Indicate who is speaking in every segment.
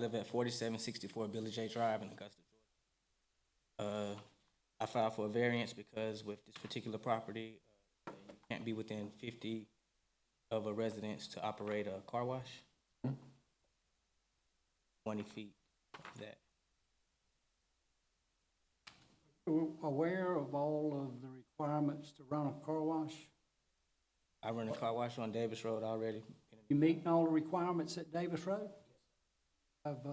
Speaker 1: live at forty-seven sixty-four Billy J Drive in Augusta, Georgia. Uh, I filed for a variance because with this particular property, uh, you can't be within fifty of a residence to operate a car wash. Twenty feet of that.
Speaker 2: aware of all of the requirements to run a car wash?
Speaker 1: I run a car wash on Davis Road already.
Speaker 2: You meeting all the requirements at Davis Road? Have, uh,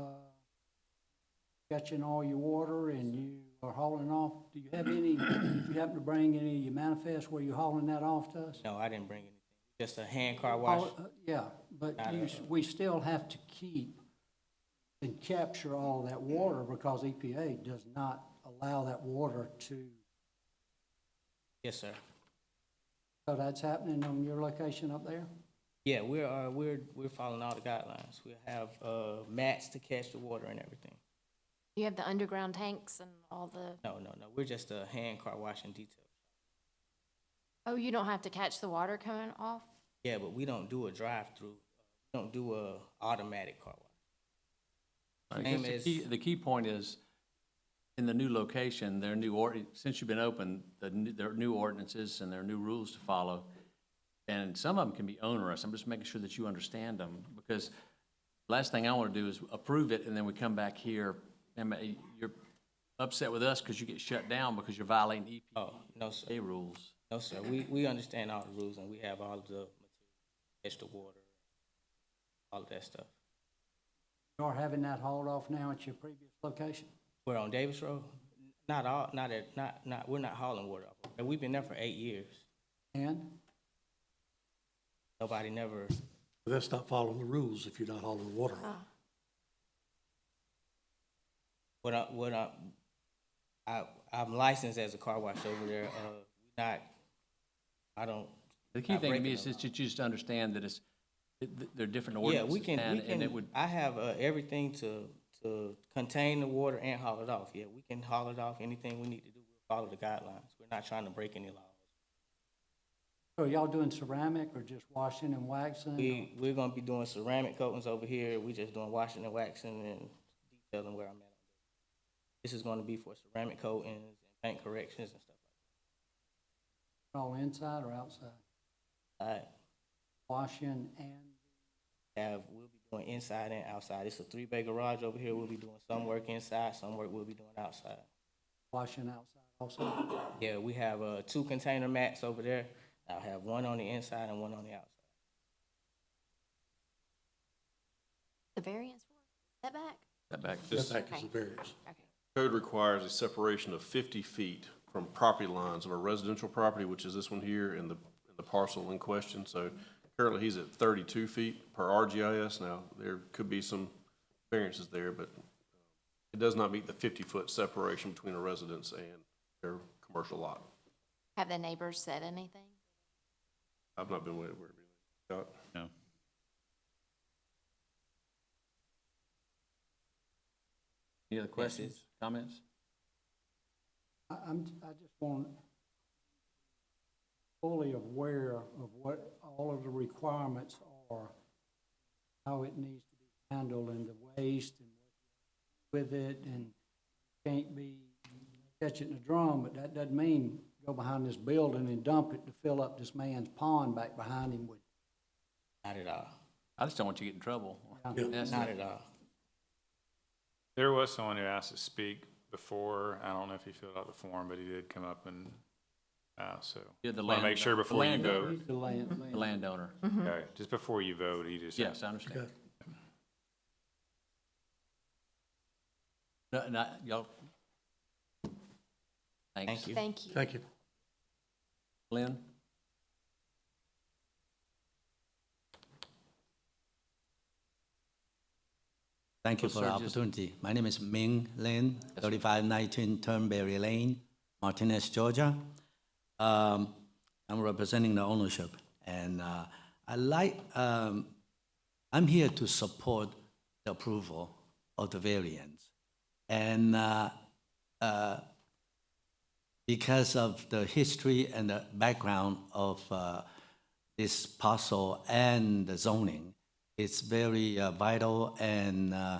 Speaker 2: got you in all your water and you are hauling off, do you have any, did you happen to bring any of your manifest where you hauling that off to us?
Speaker 1: No, I didn't bring anything, just a hand car wash.
Speaker 2: Oh, uh, Yeah, but you, s- we still have to keep and capture all that water because EPA does not allow that water to,
Speaker 1: Yes, sir.
Speaker 2: so that's happening on your location up there?
Speaker 1: Yeah, we're, uh, we're, we're following all the guidelines. We have, uh, mats to catch the water and everything.
Speaker 3: You have the underground tanks and all the,
Speaker 1: No, no, no, we're just a hand car wash and detail.
Speaker 3: oh, you don't have to catch the water coming off?
Speaker 1: Yeah, but we don't do a drive-through. We don't do a automatic car wash.
Speaker 4: I guess
Speaker 1: Name
Speaker 4: the
Speaker 1: is-
Speaker 4: key, the key point is, in the new location, their new ord, since you've been open, the, new- their new ordinances and their new rules to follow. And some of them can be onerous. I'm just making sure that you understand them, because last thing I want to do is approve it, and then we come back here, and ma- you're upset with us because you get shut down because you're violating
Speaker 1: Oh, no, sir.
Speaker 4: EPA rules.
Speaker 1: No, sir. We, we understand all the rules and we have all of the material, catch the water, all of that stuff.
Speaker 2: You are having that hauled off now at your previous location?
Speaker 1: We're on Davis Road. Not all, not at, not, not, we're not hauling water up. And we've been there for eight years.
Speaker 2: And
Speaker 1: Nobody never,
Speaker 5: But That's not following the rules if you're not hauling the water. off.
Speaker 1: what I, what I, I, I'm licensed as a car wash over there. Uh, not, I don't.
Speaker 4: The key
Speaker 1: not
Speaker 4: thing to me
Speaker 1: breaking
Speaker 4: is
Speaker 1: the law.
Speaker 4: that you just understand that it's, that th- they're different
Speaker 1: Yeah,
Speaker 4: ordinances.
Speaker 1: we can,
Speaker 4: and-
Speaker 1: we
Speaker 4: And it would,
Speaker 1: can, I have uh, everything to, to contain the water and haul it off. Yeah, we can haul it off, anything we need to do, we'll follow the guidelines. We're not trying to break any laws.
Speaker 2: so are y'all doing ceramic or just washing and waxing?
Speaker 1: We, we're gonna be doing ceramic coatings over here, we just doing washing and waxing and detailing where I'm at. This is gonna be for ceramic coatings and paint corrections and stuff
Speaker 2: All inside or outside?
Speaker 1: like that.
Speaker 2: Washing and,
Speaker 1: I have, we'll be doing inside and outside. It's a three-bay garage over here, we'll be doing some work inside, some work we'll be doing outside.
Speaker 2: washing outside also?
Speaker 1: Yeah, we have uh, two container mats over there. I'll have one on the inside and one on the outside.
Speaker 3: The variance for setback?
Speaker 4: that back.
Speaker 5: Setback is
Speaker 3: Okay.
Speaker 5: the variance.
Speaker 3: Okay.
Speaker 6: Code requires a separation of 50 feet from property lines of a residential property, which is this one here and the, and the parcel in question. So currently, he's at 32 feet per RGIS now. There could be some variances there, but it does not meet the 50-foot separation between a residence and their commercial lot.
Speaker 3: Have the neighbors said anything?
Speaker 6: I've not been aware of anything. Scott?
Speaker 7: No.
Speaker 4: Any other questions, comments?
Speaker 2: I, I'm, I just want fully aware of what all of the requirements are, how it needs to be handled and the waste and with it and can't be catching the drum, but that doesn't mean go behind this building and dump it to fill up this man's pond back behind him with
Speaker 1: Not at all.
Speaker 4: I just don't want you to get in trouble. That's
Speaker 1: Not
Speaker 4: it.
Speaker 1: at all.
Speaker 7: There was someone who asked to speak before. I don't know if he filled out the form, but he did come up and, uh, so.
Speaker 4: Yeah, the
Speaker 7: Want to make
Speaker 4: land-
Speaker 7: sure
Speaker 4: the
Speaker 7: before you
Speaker 4: land-
Speaker 7: vote,
Speaker 2: the land.
Speaker 4: The landowner.
Speaker 7: okay, just before you vote, he just.
Speaker 4: Yes, I understand.
Speaker 5: Okay.
Speaker 4: No, no, y'all. Thanks.
Speaker 1: Thank you.
Speaker 3: Thank you.
Speaker 5: Thank you.
Speaker 4: Lynn?
Speaker 8: Thank you
Speaker 4: So,
Speaker 8: for the
Speaker 4: sir, just-
Speaker 8: opportunity. My name is Ming Lin, 3519 Turnberry Lane, Martinez, Georgia. Um, I'm representing the ownership, and uh, I like, um, I'm here to support the approval of the variance. And uh, uh, because of the history and the background of uh, this parcel and the zoning, it's very uh, vital and uh,